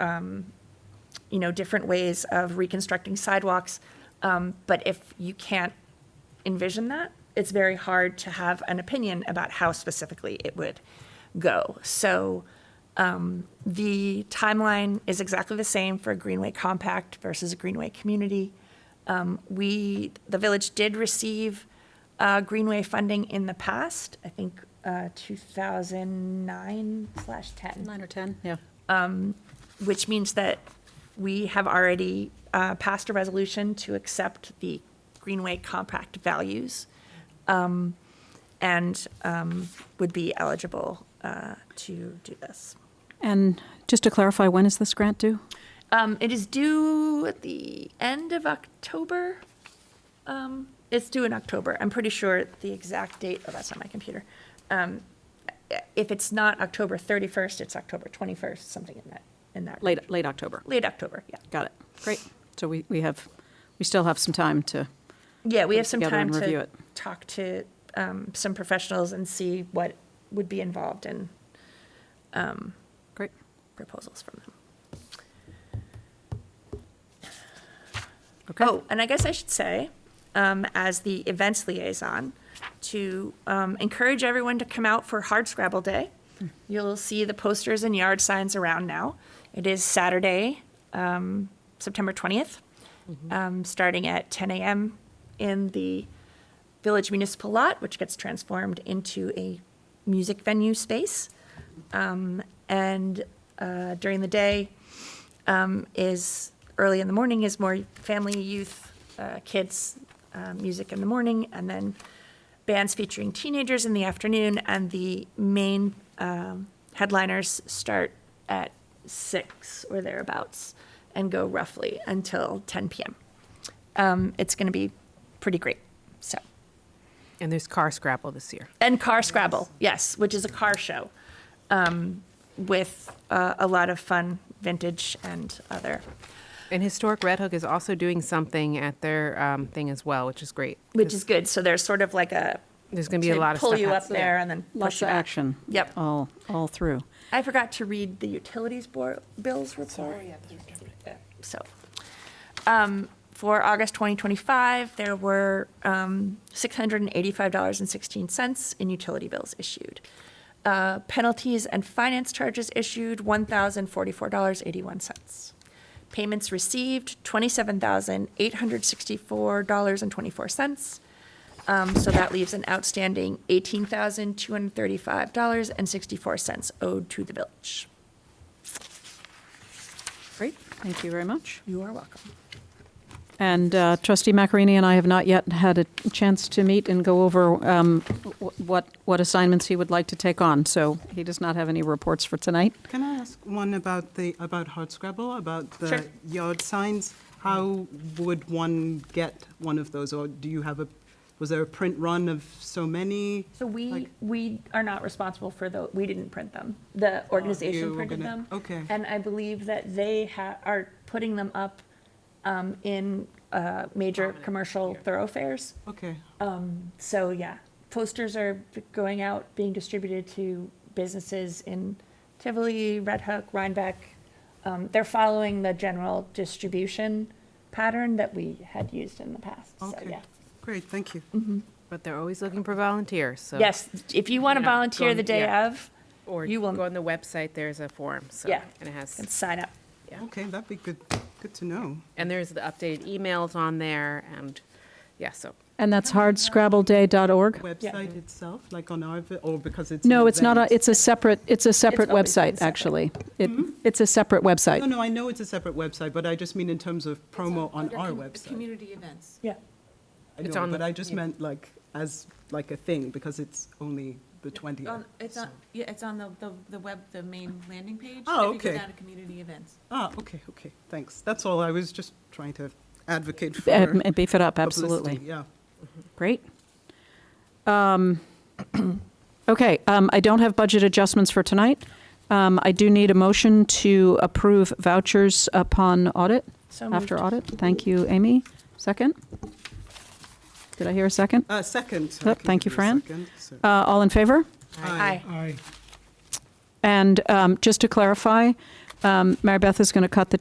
um, you know, different ways of reconstructing sidewalks. Um, But if you can't envision that, it's very hard to have an opinion about how specifically it would go. So um, the timeline is exactly the same for a Greenway Compact versus a Greenway Community. Um, We, the village did receive uh, Greenway funding in the past, I think uh, 2009 slash 10 Nine or 10, yeah. which means that we have already uh, passed a resolution to accept the Greenway Compact values um, and um, would be eligible uh, to do this. And just to clarify, when is this grant due? Um, It is due at the end of October. Um, It's due in October. I'm pretty sure the exact date, oh, that's not my computer. Um, If it's not October 31st, it's October 21st, something in that, in that. Late, late October. Late October, yeah. Got it. Great. So we, we have, we still have some time to, Yeah, we put have it some together time and review to it. talk to um, some professionals and see what would be involved in great. proposals from them. Okay. Oh, and I guess I should say, um, as the events liaison, to um, encourage everyone to come out for Hard Scrabble Day. You'll see the posters and yard signs around now. It is Saturday, um, September 20th, um, starting at 10 a.m. in the Village Municipal Lot, which gets transformed into a music venue space. Um, and uh, during the day um, is early in the morning is more family, youth, uh, kids, uh, music in the morning, and then bands featuring teenagers in the afternoon. And the main um, headliners start at six or thereabouts and go roughly until 10 p.m. Um, it's going to be pretty great. So. And there's car scrabble this year. And Car Scrabble, yes, which is a car show um, with uh, a lot of fun vintage and other, And Historic Red Hook is also doing something at their um, thing as well, which is great. which is good. So there's sort of like a. There's going to be a lot of Pull stuff. you out- up there and then push Lots you of back. action. Yep. All, all through. I forgot to read the utilities board, bills report. Yeah, So, um, for August 2025, there were, um, $685.16 in utility bills issued. Uh, penalties and finance charges issued, $1,044.81. Payments received, $27,864.24. Um, so that leaves an outstanding eighteen thousand two hundred thirty-five dollars and sixty-four cents owed to the village. Great. Thank you very much. You are welcome. And uh, trustee Macarini and I have not yet had a chance to meet and go over um, wh- what, what assignments he would like to take on. So he does not have any reports for tonight. Can I ask one about the, about hardscrabble, about Sure. the yard signs? How would one get one of those, or do you have a, was there a print run of so many? So we, Like- we are not responsible for the, we didn't print them. The organization Oh, were printed gonna- them. okay. And I believe that they ha, are putting them up, um, in, uh, major commercial thoroughfares. Okay, So, yeah, posters are going out, being distributed to businesses in Tivoli, Red Hook, Rhinebeck. Um, they're following the general distribution pattern that we had used in the past, so, okay. yeah. Great, thank you. But they're always looking for volunteers, so. Yes, if you want to You're not volunteer going- the day yeah. of, Or you go will- on the website, there's a form, so. yeah, And it has, and sign up. yeah. Okay, that'd be good, good to know. And there's the updated emails on there and, yeah, so. And that's hardscrabbleday.org? Website itself, like on our, vi- or because it's. an No, it's not, a. event? it's a separate, it's a separate Hmm? always been website, separate. actually. It, it's a separate website. No, no, I know it's a separate website, but I just mean in terms of promo on our website. Community events. Yeah. I It's know, on but the- I just meant like, as, like a thing, because it's only the On- 20th. It's on, yeah, it's on the, the, the web, the main landing page. Oh, If you okay. go down to community events. Ah, okay, okay, thanks. That's all, I was just trying to advocate for. Uh, and Beef it up, publicity, absolutely. Yeah. Great. Um, Okay, um, I don't have budget adjustments for tonight. Um, I do need a motion to approve vouchers upon audit, So after moved. audit. Thank you, Amy. Second? Did I hear a second? Uh, second. Oh, I can thank give you, a Fran. second, so- Uh, All in favor? Aye. Aye. And um, just to clarify, Um, Mary Beth is going to cut the